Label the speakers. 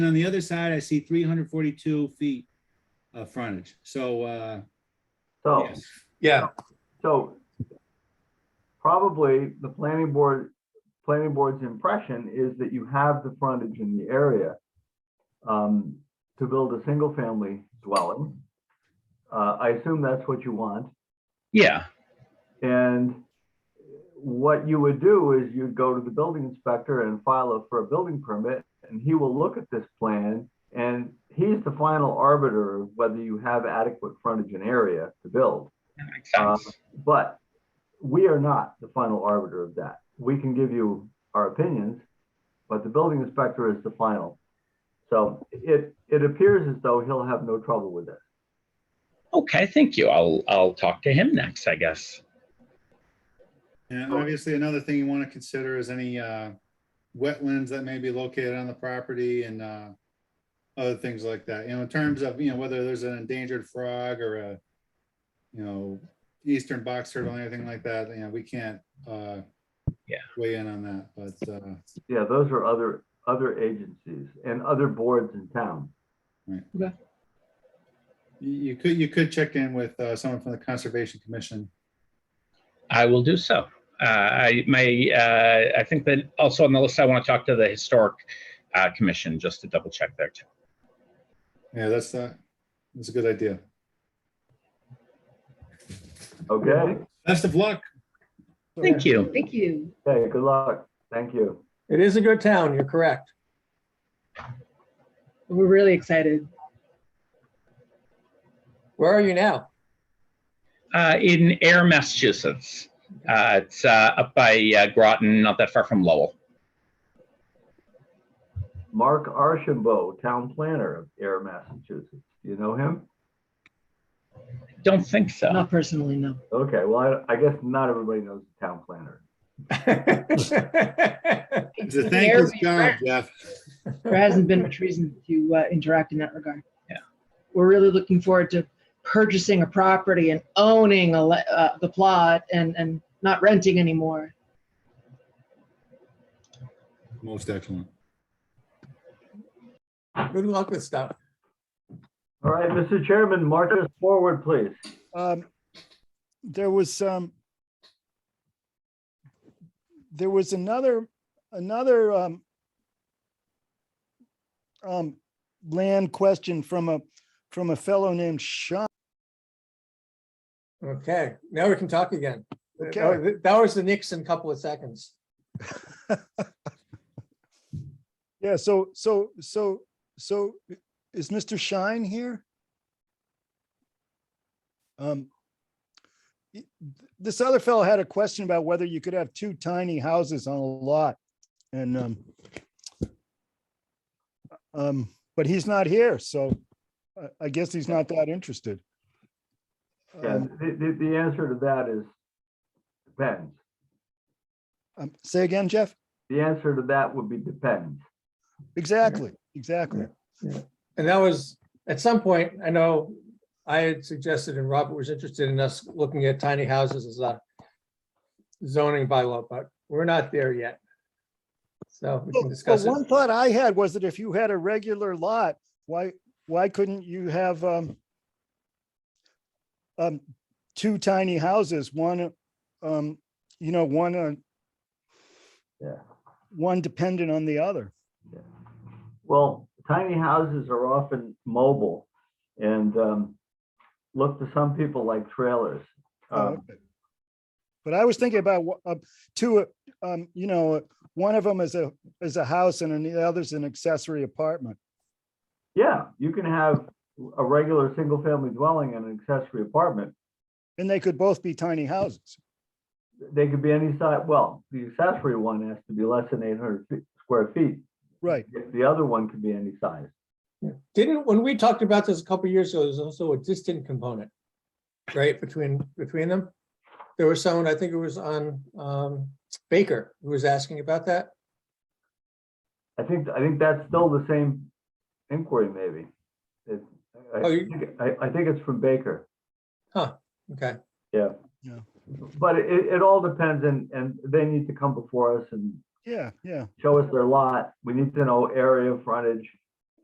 Speaker 1: And on the other side, I see three hundred forty-two feet of frontage. So, uh,
Speaker 2: So,
Speaker 1: yes,
Speaker 3: Yeah,
Speaker 2: so probably the planning board, planning board's impression is that you have the frontage in the area um, to build a single-family dwelling. Uh, I assume that's what you want.
Speaker 4: Yeah,
Speaker 2: And what you would do is you'd go to the building inspector and file a- for a building permit, and he will look at this plan, and he's the final arbiter of whether you have adequate frontage and area to build.
Speaker 4: that makes
Speaker 2: Uh,
Speaker 4: sense.
Speaker 2: But we are not the final arbiter of that. We can give you our opinions, but the building inspector is the final. So it, it appears as though he'll have no trouble with it.
Speaker 4: Uh, Okay, thank you. I'll I'll talk to him next, I guess.
Speaker 1: and obviously another thing you want to consider is any, uh, wetlands that may be located on the property and, uh, other things like that, you know, in terms of, you know, whether there's an endangered frog or a, you know, eastern box turtle, anything like that, you know, we can't, uh,
Speaker 4: Yeah.
Speaker 1: weigh in on that, but, uh,
Speaker 2: Yeah, those are other, other agencies and other boards in town.
Speaker 1: you, you could, you could check in with, uh, someone from the Conservation Commission.
Speaker 4: I will do so. Uh, I may. Uh, I think that also on the list, I want to talk to the historic uh, commission just to double check there too.
Speaker 1: Yeah, that's, uh, that's a good idea.
Speaker 2: Okay,
Speaker 1: Best of luck.
Speaker 4: Thank you.
Speaker 5: Thank you.
Speaker 2: okay, good luck. Thank you.
Speaker 3: it is a good town, you're correct.
Speaker 5: We're really excited.
Speaker 3: Where are you now?
Speaker 4: Uh, in Air, Massachusetts, uh, it's uh, up by uh, Groton, not that far from Lowell.
Speaker 2: Mark Archambault, town planner of Air, Massachusetts. Do you know him?
Speaker 4: Don't think so.
Speaker 5: Not personally, no.
Speaker 2: Okay, well, I, I guess not everybody knows the town planner.
Speaker 1: It's a thank you, job, Jeff.
Speaker 5: There hasn't been much reason to uh, interact in that regard.
Speaker 4: Yeah.
Speaker 5: We're really looking forward to purchasing a property and owning a, le- uh, the plot and, and not renting anymore.
Speaker 1: Most excellent.
Speaker 3: Good luck with stuff.
Speaker 2: All right, Mr. Chairman, march us forward, please.
Speaker 6: um, there was um there was another, another, um, um, land question from a, from a fellow named Sean.
Speaker 3: Okay, now we can talk again.
Speaker 6: Okay.
Speaker 3: That that was the Nixon couple of seconds.
Speaker 6: Yeah, so, so, so, so is Mr. Shine here? Um, y- th- This other fellow had a question about whether you could have two tiny houses on a lot and um, um, but he's not here, so I, I guess he's not that interested.
Speaker 2: Yeah,
Speaker 6: Um,
Speaker 2: the, the, the answer to that is depends.
Speaker 6: um, Say again, Jeff?
Speaker 2: The answer to that would be depends.
Speaker 6: Exactly, exactly.
Speaker 3: And that was, at some point, I know I had suggested and Robert was interested in us looking at tiny houses as a zoning bylaw, but we're not there yet. So we
Speaker 6: Well,
Speaker 3: can
Speaker 6: well,
Speaker 3: discuss it.
Speaker 6: one thought I had was that if you had a regular lot, why, why couldn't you have, um, um, two tiny houses, one, um, you know, one, uh,
Speaker 2: Yeah.
Speaker 6: one dependent on the other.
Speaker 2: Well, tiny houses are often mobile and um, look to some people like trailers.
Speaker 3: Uh.
Speaker 6: Oh,
Speaker 2: Um,
Speaker 6: okay. But I was thinking about, wha- uh, two, uh, um, you know, uh, one of them is a, is a house and then the other's an accessory apartment.
Speaker 2: Yeah, you can have a regular single-family dwelling and an accessory apartment.
Speaker 6: And they could both be tiny houses.
Speaker 2: They could be any size, well, the accessory one has to be less than 800 feet- square feet.
Speaker 6: Right.
Speaker 2: The other one could be any size.
Speaker 3: Didn't, when we talked about this a couple of years ago, there's also a distant component, right, between, between them? There was someone, I think it was on um, Baker, who was asking about that.
Speaker 2: I think, I think that's still the same inquiry, maybe. It- I- I
Speaker 3: Oh, you-
Speaker 2: think- I, I think it's from Baker,
Speaker 3: Okay,
Speaker 2: yeah.
Speaker 6: Yeah.
Speaker 2: But it, it all depends and, and they need to come before us and
Speaker 6: Yeah, yeah.
Speaker 2: show us their lot. We need to know area, frontage,